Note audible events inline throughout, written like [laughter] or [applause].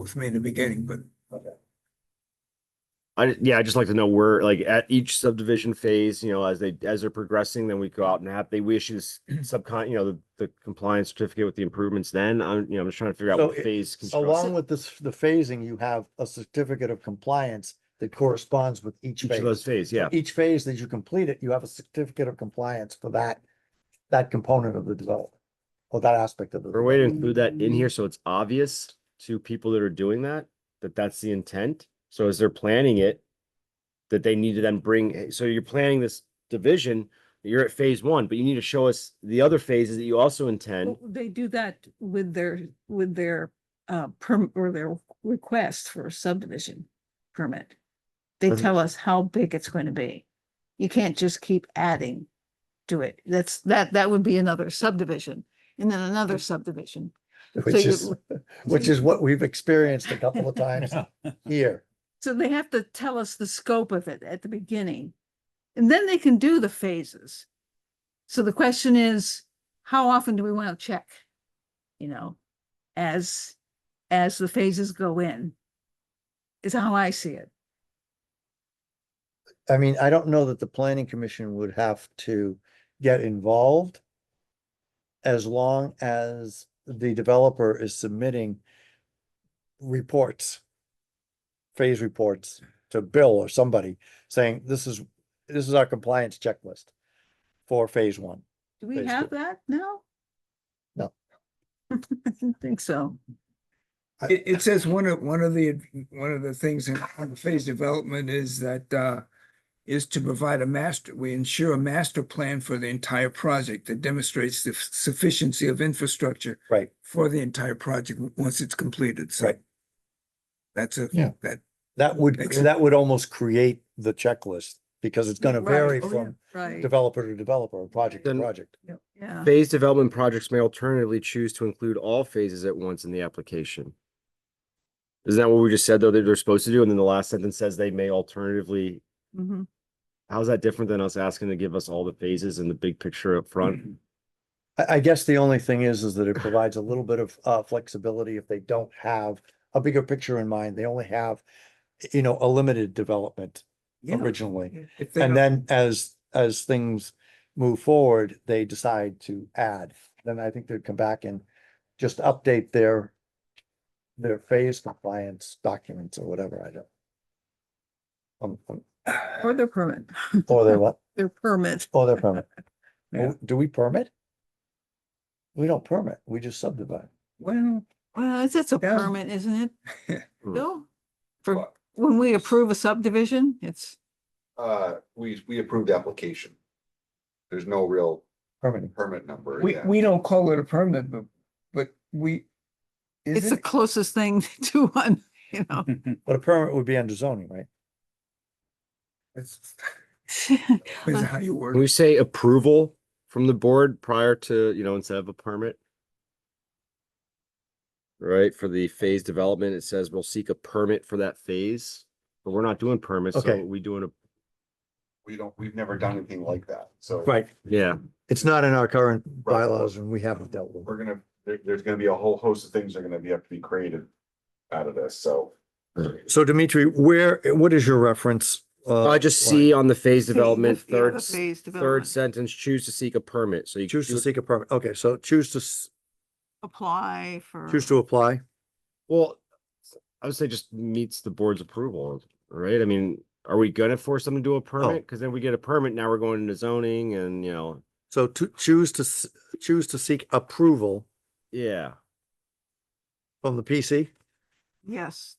with me in the beginning, but I, yeah, I'd just like to know where, like, at each subdivision phase, you know, as they, as they're progressing, then we go out and have, they we issue [clears throat] s- subcon, you know, the, the compliance certificate with the improvements then, I'm, you know, I'm just trying to figure out So what it- phase. construct- Along with this, the phasing, you have a certificate of compliance that corresponds with each Each of phase. those phase, yeah, Each phase that you complete it, you have a certificate of compliance for that, that component of the development. Or that aspect of the. or a way to include that in here, so it's obvious to people that are doing that, that that's the intent, so as they're planning it. That they need to then bring, eh, so you're planning this division, you're at phase one, but you need to show us the other phases that you also intend. Well, They do that with their, with their, uh, perm, or their request for a subdivision permit. They Doesn't- tell us how big it's going to be. You can't just keep adding to it. That's, that, that would be another subdivision and then another subdivision. Which you- is, which is what we've experienced a couple of times here. So they have to tell us the scope of it at the beginning. And then they can do the phases. So the question is, how often do we want to check? You know, as, as the phases go in. Is how I see it. I mean, I don't know that the planning commission would have to get involved. As long as the developer is submitting reports. Phase reports to Bill or somebody saying, this is, this is our compliance checklist for phase one. Do we Phase have two. that now? No. [laughs] I didn't think so. I- it, it says one of, one of the, one of the things in on the phase development is that, uh, is to provide a master, we ensure a master plan for the entire project that demonstrates the sufficiency of infrastructure Right. for the entire project once it's completed, so. Right. That's a, Yeah. that, That would, Makes- that would almost create the checklist because it's gonna Right. vary Oh, yeah. from Right. developer to developer, or project to Then- project. Yeah. Phase development projects may alternatively choose to include all phases at once in the application. Isn't that what we just said, though, that they're supposed to do? And then the last sentence says they may alternatively, Mhm. how's that different than us asking to give us all the phases and the big picture up front? I, I guess the only thing is, is that it provides a little bit of, uh, flexibility if they don't have a bigger picture in mind. They only have, you know, a limited development yeah. originally. If they And don't- then as, as things move forward, they decide to add. Then I think they'd come back and just update their, their phase compliance documents or whatever. I don't. Um, um, Or their permit, or their what? their permit. Or their permit. Yeah. Oh, Do we permit? We don't permit. We just subdivide. [sighs] Well, Well, it's, it's a Yeah. permit, isn't [laughs] it? Hmm. Bill? Well- For, when we approve a subdivision, it's, Uh, we, we approved the application. There's no real Permitting. permit number. we, yeah. we don't call it a permit, but, but we. it's the isn't- closest thing [laughs] to one, you know? But a permit would be under zoning, right? That's [laughs] Hmm. [laughs] that's how you work. Can we say approval from the board prior to, you know, instead of a permit? Right, for the phase development, it says we'll seek a permit for that phase, but we're not doing permits, so Okay. we doing a, We don't, we've never done anything like that, so. Right. yeah. It's not in our current bylaws and we haven't dealt with it. We're gonna, there, there's gonna be a whole host of things that are gonna be, have to be created out of this, so. So Dimitri, where, what is your reference? uh, I just line? see on the phase the- development, yeah, the third, s- phase third development. sentence, choose to seek a permit, so you. Choose to you- seek a permit. Okay, so choose to, s- Apply for. choose to apply. Well, I would say just meets the board's approval, right? I mean, are we gonna force them to do a permit? Cause then we get a permit, now we're going into zoning and, you know, So to choose to, s- choose to seek approval yeah. from the PC. Yes,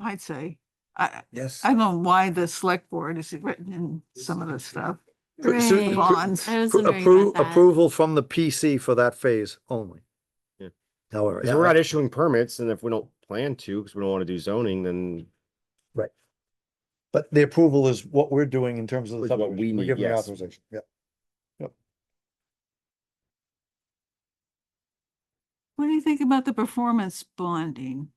I'd say. I, Yes. I don't know why the select board is written in some of the stuff. Pr- so- Right. Bonds. I was wondering Appro- about that. Approval from the PC for that phase only. Yeah. However. Cause we're not issuing permits and if we don't plan to, cause we don't wanna do zoning, then But the approval is what we're doing in terms of the Is what subdivision. we We're need, giving the yes. Authorization, yeah. What do you think about the performance bonding?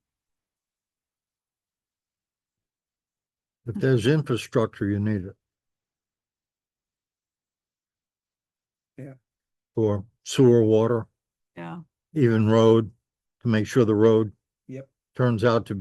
If there's infrastructure, you need it. Yeah. For sewer, water, Yeah. even road, to make sure the road. Yep. Turns out to